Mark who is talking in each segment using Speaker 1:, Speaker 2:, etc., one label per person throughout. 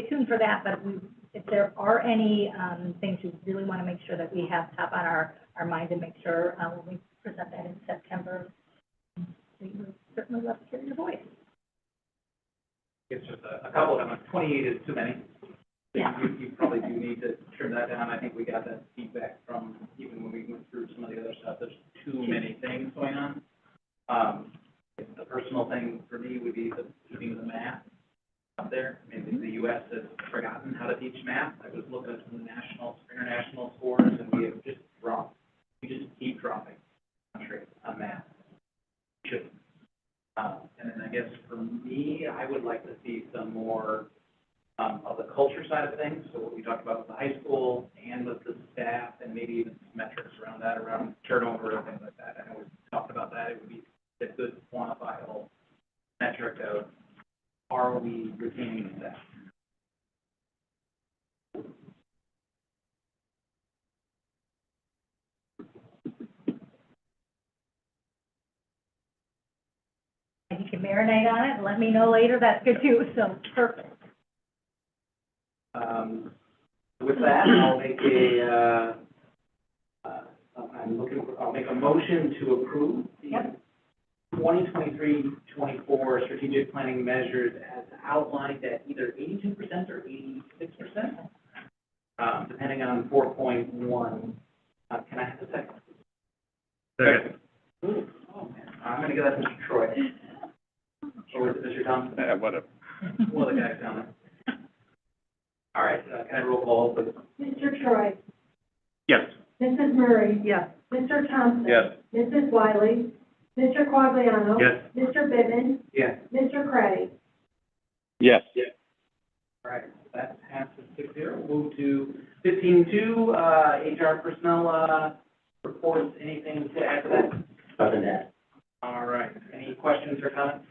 Speaker 1: stay tuned for that, but we, if there are any, um, things we really want to make sure that we have top on our, our mind and make sure, uh, when we present that in September, we would certainly love to hear your voice.
Speaker 2: It's just a, a couple of them, twenty-eight is too many.
Speaker 1: Yeah.
Speaker 2: You, you probably do need to trim that down, I think we got that feedback from, even when we went through some of the other stuff, there's too many things going on. Um, the personal thing for me would be the, keeping the math up there, I mean, the, the US has forgotten how to teach math, I was looking at some national, international scores, and we have just dropped, we just keep dropping country on math. Should uh, And then I guess for me, I would like to see some more um, of the culture side of things. So what we talked about with the high school and with the staff and maybe even some metrics around that, around turnover and things like that. I know we talked about that. It would be a good quantifiable metric of are we retaining staff?
Speaker 1: And you can marinate on it, and let me know later, that's good too, so, perfect.
Speaker 2: Um, With that, I'll make a, uh, uh, I'm looking, for- I'll make a motion to approve the
Speaker 1: Yep.
Speaker 2: 2023-24 strategic planning measures as outlined at either 82% or 86%, um, depending on 4.1. Uh, Can I have a second?
Speaker 3: Second.
Speaker 2: Ooh, oh, man, I'm going to give that to Mr. Troy. Or is it Mr. Thompson?
Speaker 3: Yeah, Uh, whatever.
Speaker 2: One of the guys down there. All right, uh, can I roll call, please?
Speaker 4: Mr. Troy,
Speaker 3: Yes.
Speaker 4: Mrs. Murray,
Speaker 1: Yeah.
Speaker 4: Mr. Thompson.
Speaker 3: Yes.
Speaker 4: Mrs. Wiley, Mr. Quagliano.
Speaker 3: Yes.
Speaker 4: Mr. Bivin,
Speaker 2: Yeah.
Speaker 4: Mr. Cray.
Speaker 3: Yes.
Speaker 2: All right, that passes six zero. Move to fifteen two, uh, HR personnel, uh, reports, anything to add to that?
Speaker 5: Other than that,
Speaker 2: All right, any questions or comments?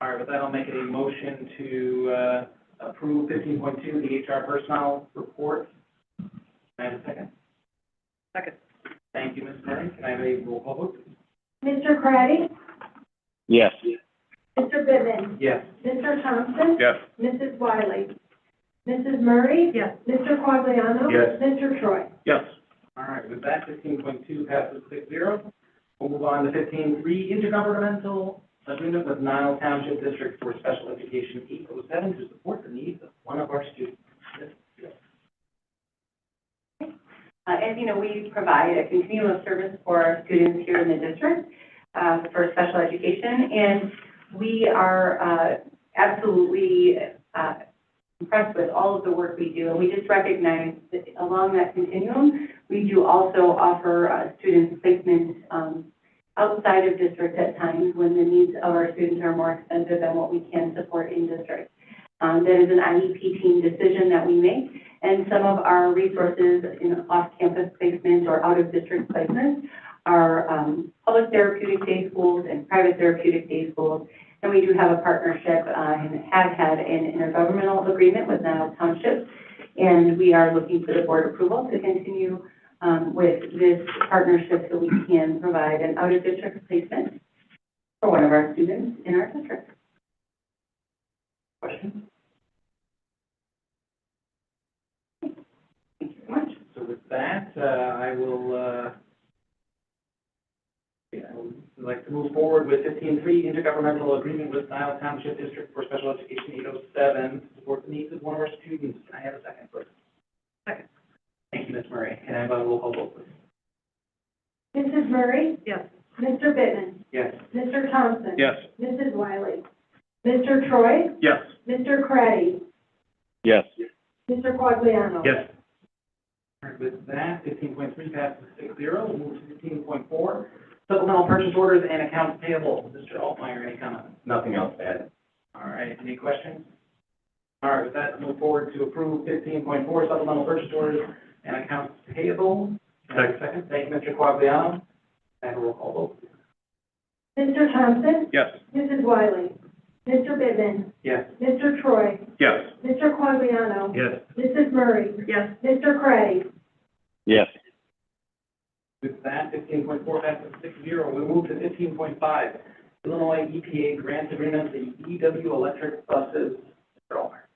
Speaker 2: All right, with that, I'll make a motion to, uh, approve fifteen point two, the HR personnel report. Can I have a second? Second. Thank you, Ms. Murray. Can I have a roll call vote? please?
Speaker 4: Mr. Cray,
Speaker 3: Yes.
Speaker 4: Mr. Bivin,
Speaker 2: Yes.
Speaker 4: Mr. Thompson.
Speaker 3: Yes.
Speaker 4: Mrs. Wiley, Mrs. Murray.
Speaker 1: Yes.
Speaker 4: Mr. Quagliano.
Speaker 3: Yes.
Speaker 4: Mr. Troy.
Speaker 3: Yes.
Speaker 2: All right, with that, fifteen point two passes six zero. We'll move on to fifteen three, intergovernmental agreement with Nile Township District for Special Education eight oh seven to support the needs of one of our students.
Speaker 6: Uh, As you know, we provide a continuum of service for our students here in the district uh, for special education, and we are uh, absolutely uh, impressed with all of the work we do. And we just recognize that along that continuum, we do also offer uh, students placement um, outside of district at times when the needs of our students are more extensive than what we can support in district. Um, That is an IEP team decision that we make, and some of our resources in off-campus placements or out-of-district placements are um, public therapeutic day schools and private therapeutic day schools. And we do have a partnership uh, and have had an intergovernmental agreement with Nile Township. And we are looking for the board approval to continue um, with this partnership so we can provide an out-of-district placement for one of our students in our district.
Speaker 2: Questions? Thank you very much. So with that, uh, I will, uh, yeah, I would like to move forward with fifteen three, intergovernmental agreement with Nile Township District for Special Education eight oh seven to support the needs of one of our students. Can I have a second, please? Second. Thank you, Ms. Murray. Can I have a roll call vote, please?
Speaker 4: Mrs. Murray.
Speaker 1: Yes.
Speaker 4: Mr. Bivin,
Speaker 2: Yes.
Speaker 4: Mr. Thompson.
Speaker 3: Yes.
Speaker 4: Mrs. Wiley, Mr. Troy,
Speaker 3: Yes.
Speaker 4: Mr. Cray,
Speaker 3: Yes.
Speaker 4: Mr. Quagliano.
Speaker 3: Yes.
Speaker 2: All right, With that, fifteen point three passes six zero, we'll move to fifteen point four, supplemental purchase orders and accounts payable. Mr. Altmeyer, any comments?
Speaker 5: nothing else to add.
Speaker 2: All right, any questions? All right, with that, move forward to approve fifteen point four supplemental purchase orders and accounts payable. Can I have a Second, thank you, Mr. Quagliano. And a roll call vote. please.
Speaker 4: Mr. Thompson.
Speaker 3: Yes.
Speaker 4: Mrs. Wiley, Mr. Bivin,
Speaker 2: Yes.
Speaker 4: Mr. Troy,
Speaker 3: Yes.
Speaker 4: Mr. Quagliano,
Speaker 3: Yes.
Speaker 4: Mrs. Murray,
Speaker 1: Yes.
Speaker 4: Mr. Cray,
Speaker 3: Yes.
Speaker 2: With that, fifteen point four passes six zero, we move to fifteen point E five, Illinois EPA grant agreement, the EW electric E buses. Mr. Altmeyer.